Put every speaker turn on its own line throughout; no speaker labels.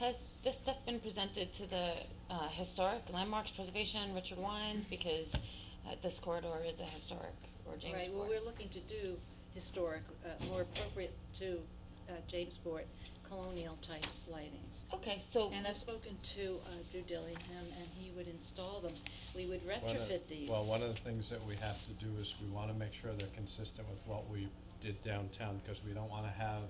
has this stuff been presented to the, uh, historic landmarks preservation, Richard Wines, because, uh, this corridor is a historic, or James
Right, well, we're looking to do historic, uh, more appropriate to, uh, Jamesport, colonial type lighting.
Okay, so.
And I've spoken to, uh, Drew Dillingham, and he would install them, we would
One of-
retrofit these.
Well, one of the things that we have to do is we wanna make sure they're consistent with what we did downtown, cause we don't wanna have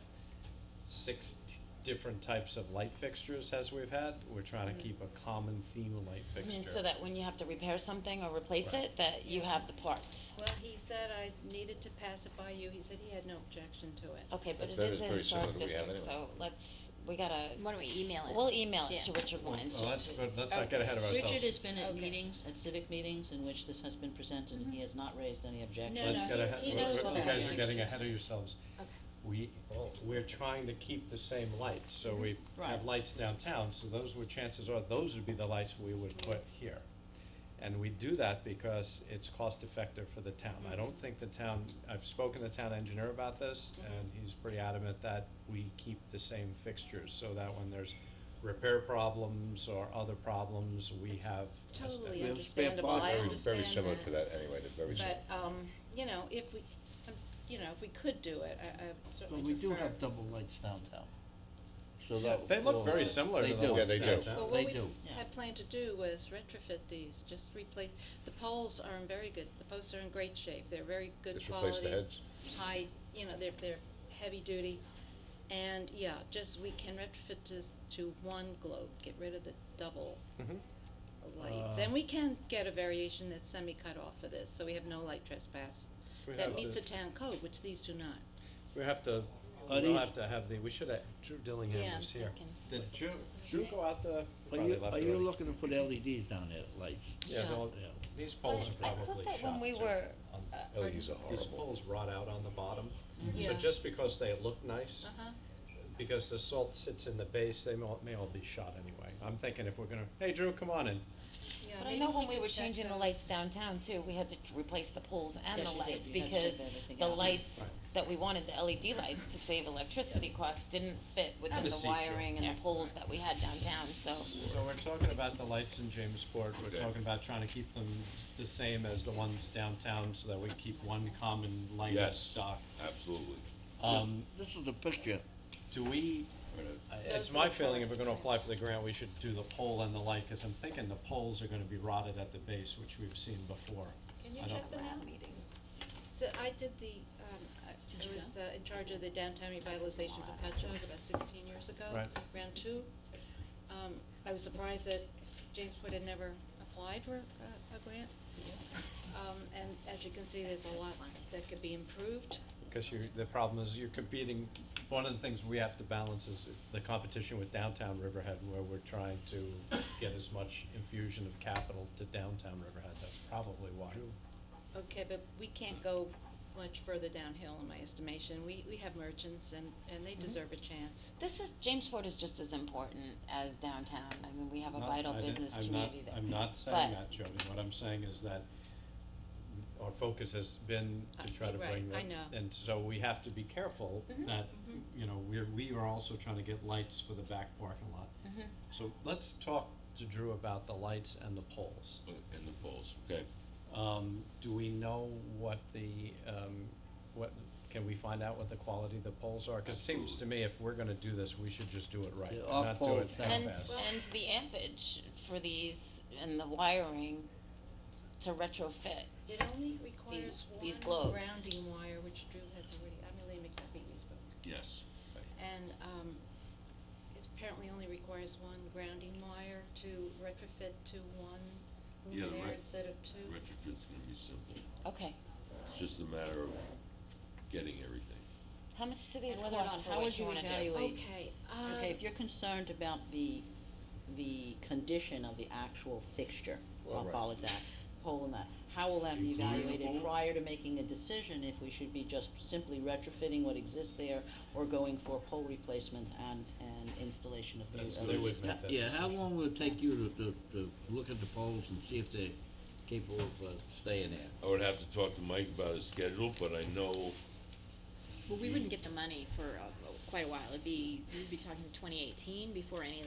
six t- different types of light fixtures as we've had, we're trying to keep a common theme of light
I
fixture.
mean, so that when you have to repair something or replace
Right.
it, that you have the parts.
Well, he said I needed to pass it by you, he said he had no objection to it.
Okay, but
That's
it
very-
is a
very similar
historic
to what we have
district, so
anyway.
let's, we gotta,
Why don't we email it?
we'll email it to
Yeah.
Richard Wines.
Well, let's,
just to-
but let's not get ahead of ourselves.
Richard has been at
Okay.
meetings, at civic meetings, in which this has been presented, and he has not raised any objections.
No,
Let's
no,
get
he-
ahead,
he
we-
knows
we-
what
you
that
guys are
means.
getting ahead of yourselves. We, we're trying to keep the same light, so we
Mm-hmm.
have
Right.
lights downtown, so those would, chances are, those would be the lights we would put here. And we do that because it's cost effective for the town. I don't think the town, I've spoken to the town engineer about this, and he's pretty adamant that we keep the same fixtures, so that when there's repair problems or other problems, we
It's
have. a step.
Totally
We have spare
understandable, I
Very-
understand that.
Very similar to that anyway, they're very similar.
But, um, you know, if we, um, you know, if we could do it, I, I would
But
certainly
we
prefer.
do have double lights downtown. So
Yeah,
that.
They look
will-
very similar
they
to the
do.
Yeah,
ones
they do.
downtown.
Well,
They
what we
do.
had planned to do was retrofit these, just replace, the poles are in very good, the posts are in great shape, they're very good
Just
quality.
replace the heads.
High, you know, they're, they're heavy duty, and, yeah, just, we can retrofit this to one globe, get rid of the double
Mhm.
lights.
Uh,
And we can get a variation that's semi-cut off for this, so we have no light trespass,
We have
that meets
to-
the town code, which these do not.
We have to,
Are
we'll
these-
have to have the, we should have, Drew
Yeah,
Dillingham
I'm
was here.
thinking.
Did Drew, Drew go out the?
Are
probably
you,
left
are you
already.
looking to put LEDs down there, lights?
Yeah,
Yeah.
well,
Yeah.
these poles are
But I thought
probably
that when
shot
we
too.
were,
Um,
uh,
LEDs are
These
horrible.
poles rot out on the bottom, so
Yeah.
just because they look nice,
Uh-huh.
because the salt sits in the base, they may, all- may all be shot anyway. I'm thinking if we're gonna, hey Drew, come on in,
Yeah,
But I
maybe
know
he
when we
could
were
check
changing the
those.
lights downtown too, we had to t- replace the poles and
Yes,
the
you did.
lights
You had to
because
take everything
the
out.
lights
Right.
that we wanted, the LED lights to save electricity costs didn't fit within
Have a
the
seat, Joe.
wiring and the poles that we had downtown, so.
So we're talking about the lights in Jamesport, we're
Okay.
talking about trying to keep them s- the same as the ones downtown, so that we keep one common light
Yes.
stock.
Absolutely.
Um,
This is a picture.
do we, I-
Those
it's
are
my
the
feeling if we're
current
gonna apply for the grant, we should do the pole and the light, cause I'm thinking the poles are gonna be rotted at the base, which we've seen before.
Can you
I don't-
check them out? So I did the, um, I I was uh, in charge of the downtown revitalization for Patchogue about sixteen years ago,
Right.
round two. Um, I was surprised that Jamesport had never applied for a, a grant. Um, and as you can see, there's a lot that could be improved.
Cause you, the problem is you're competing, one of the things we have to balance is the competition with downtown Riverhead, where we're trying to get as much infusion of capital to downtown Riverhead, that's probably why.
Okay, but we can't go much further downhill in my estimation. We, we have merchants and, and they deserve a chance.
This is, Jamesport is just as important as downtown, I mean, we have a
Not-
vital
I didn't-
business
I'm not-
community there.
I'm not saying
But-
that, Jody, what I'm saying is that our focus has been
Uh,
to try to
right,
bring the.
I know.
And so we have to be careful
Mm-hmm,
that, you know, we're, we are also trying to get lights for the back parking lot.
Mm-hmm.
So let's talk to Drew about the lights and the poles.
And the poles, okay.
Um, do we know what the, um, what, can we find out what the quality of the poles are? Cause it seems to me if we're gonna do this, we should just do it right,
Yeah,
and
our
not do it
poles down.
And,
half-assed.
and the ampage for these and the wiring to retrofit.
It only requires
these
one
globes.
grounding wire, which Drew has already, I'm Elaine McDuffie, we spoke.
Yes.
And um, it apparently only requires one grounding wire to retrofit to one
Yeah, the
luminaire
re-
instead of two.
Retrofit's gonna be simple,
Okay,
it's just a matter of getting everything.
how much do these
And whether or
cost
not-
for
how
what
would
you
you
wanna do?
evaluate-
Okay,
Okay, if
uh,
you're concerned about the, the condition of the actual fixture, I'll call it that, pole and that, how will that be
Including the
evaluated
pole?
prior to making a decision if we should be just simply retrofitting what exists there or going for pole replacement and, and installation of
That's
new
what it
LED
would
stuff?
that
Yeah, how
decision.
long will it take you to, to, to look at the poles and see if they're capable of uh, staying there?
I would have to talk to Mike about his schedule, but I know,
Well, we wouldn't get the money for uh, quite a while. It'd be, we'd be talking 2018 before any of